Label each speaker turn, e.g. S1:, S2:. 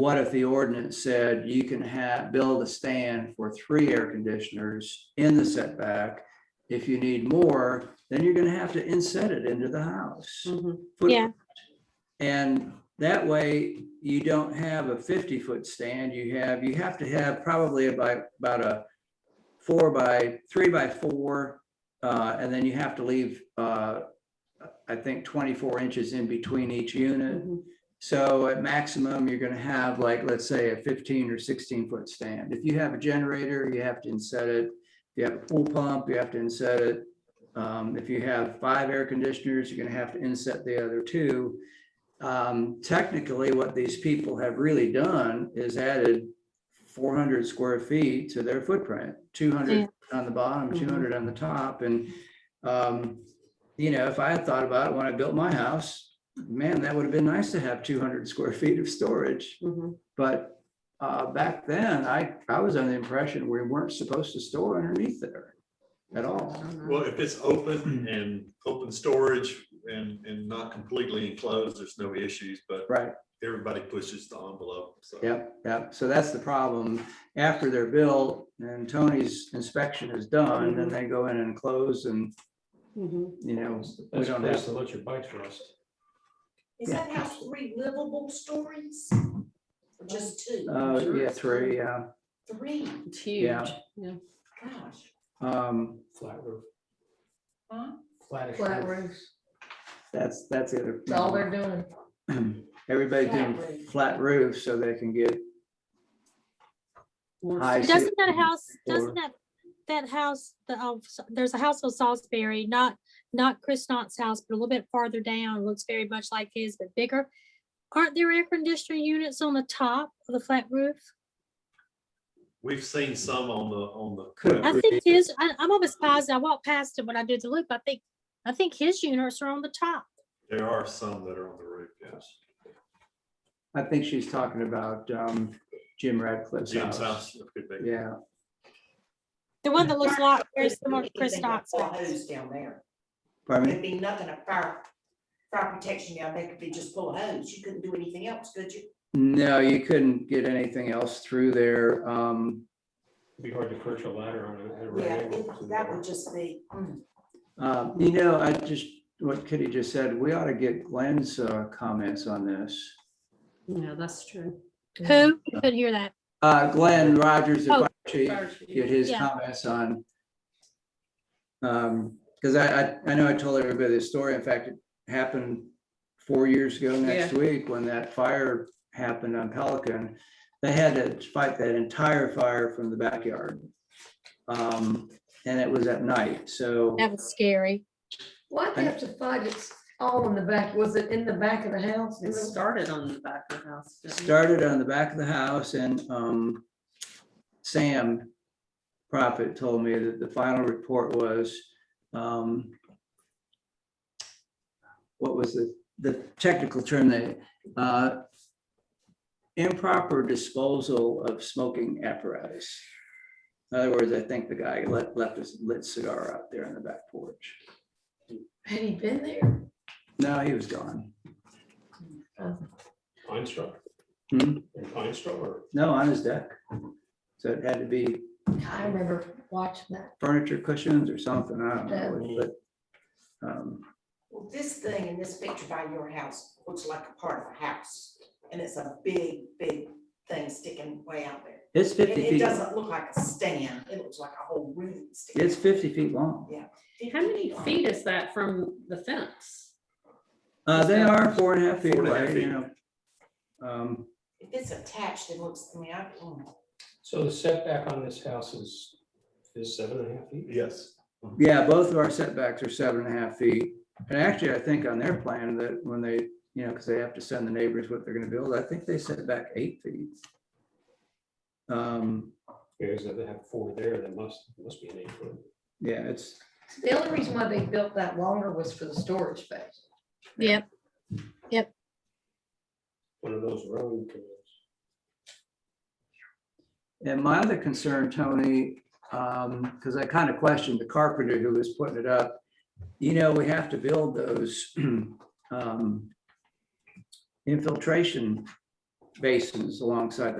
S1: what if the ordinance said you can have, build a stand for three air conditioners in the setback? If you need more, then you're gonna have to inset it into the house.
S2: Mhm.
S1: foot-
S3: Yeah.
S1: And that way, you don't have a fifty-foot stand, you have, you have to have probably about, about a four by, three by four, uh, and then you have to leave, uh, I think twenty-four inches in between each unit.
S2: Mhm.
S1: So at maximum, you're gonna have like, let's say, a fifteen or sixteen foot stand. If you have a generator, you have to inset it. If you have a pool pump, you have to inset it. Um, if you have five air conditioners, you're gonna have to inset the other two. Um, technically, what these people have really done is added four hundred square feet to their footprint, two
S3: Yeah.
S1: hundred on the bottom,
S2: Mhm.
S1: two hundred on the top, and um, you know, if I had thought about it when I built my house, man, that would have been nice to have two hundred square feet of storage.
S2: Mhm.
S1: But uh, back then, I, I was under the impression we weren't supposed to store underneath there at all.
S4: Well, if it's open and open storage and, and not completely enclosed, there's no issues, but
S1: Right,
S4: everybody pushes the envelope, so.
S1: yep, yep. So that's the problem. After they're built and Tony's inspection is done, then they go in and close and,
S2: Mhm.
S1: you know, we
S5: That's a
S1: don't
S5: place
S1: have,
S5: to let your bikes rust.
S6: Is that house three livable stories? Or just two?
S1: uh, yeah, three, yeah.
S6: Three,
S2: It's
S1: Yeah.
S2: huge. Yeah.
S6: gosh,
S1: Um,
S5: Flat roof.
S6: huh?
S5: Flattish.
S7: Flat
S5: roof.
S7: roofs,
S1: that's, that's the other.
S7: that's all they're doing.
S1: Everybody's
S6: Flat
S1: doing
S6: roof.
S1: flat roofs so they can get
S2: More
S1: High
S2: space.
S1: see
S3: Doesn't
S1: what
S3: that
S1: you mean,
S3: house, doesn't that, that house, the, oh, so- there's a house on Salisbury, not, not Chris Knott's house, but a little bit farther down, looks very much like his, but bigger. Aren't there air conditioner units on the top of the flat roof?
S4: We've seen some on the, on the.
S1: Could-
S3: I think his, I, I'm almost positive, I walked past it when I did the loop, I think, I think his units are on the top.
S4: There are some that are on the roof, yes.
S1: I think she's talking about um, Jim Radcliffe's
S4: Jim's
S1: house.
S4: house. it could be.
S1: Yeah,
S3: The one that looks like, very
S6: There's
S3: similar to Chris Knott's house.
S6: Hose down there.
S1: pardon me?
S6: There'd be nothing of fire, fire protection down there, could be just full hose, you couldn't do anything else, could you?
S1: No, you couldn't get anything else through there. Um,
S5: Be hard to perch a ladder on a- at a right
S6: Yeah,
S5: angle to
S6: it-
S5: the
S6: that
S5: wall.
S6: would just be, mm,
S1: uh, You know, I just, what Kitty just said, we ought to get Glenn's uh, comments on this.
S2: Yeah, that's true.
S3: Who? Couldn't hear that.
S1: Uh, Glenn Rogers, the
S3: Oh.
S1: fire chief, get his
S3: Yeah.
S1: comments on. Um, because I, I, I know I told everybody this story. In fact, it happened four years ago next week when that fire happened on Pelican. They had to fight that entire fire from the backyard. Um, and it was at night, so
S3: That was scary.
S7: Why do you have to fight it's all in the back? Was it in the back of the house?
S2: It started on the back of the house. didn't it?
S1: started on the back of the house and, um, Sam Prophet told me that the final report was, um, what was the, the technical term they, uh, improper disposal of smoking apparatus. In other words, I think the guy left, left his lit cigar out there on the back porch.
S7: Had he been there?
S1: No, he was gone.
S5: Pine straw.
S1: Hmm?
S5: And pine straw or
S1: No, on his deck. So it had to be
S7: I remember watching that.
S1: furniture cushions or something, I don't know, but. um,
S6: well, this thing in this picture by your house looks like a part of a house. And it's a big, big thing sticking way out there.
S1: It's
S6: It,
S1: fifty
S6: it
S1: feet,
S6: doesn't look like a stand, it looks like a whole room. sticking
S1: it's fifty feet long.
S2: How many feet is that from the fence?
S1: Uh, they are four and a half feet
S4: Four and a half
S1: away, you
S4: feet.
S1: know. Um,
S6: If it's attached, it looks, I mean, I, mm,
S5: So the setback on this house is, is seven and a half feet?
S4: Yes.
S1: yeah, both of our setbacks are seven and a half feet. And actually, I think on their plan that when they, you know, because they have to send the neighbors what they're gonna build, I think they set back eight feet. Um,
S5: Because if they have four there, that must, must be an eight foot.
S1: yeah, it's,
S7: The only reason why they built that longer was for the storage space.
S3: Yep.
S5: One of those road canoes.
S1: And my other concern, Tony, because I kind of questioned the carpenter who was putting it up, you know, we have to build those um, infiltration basins alongside the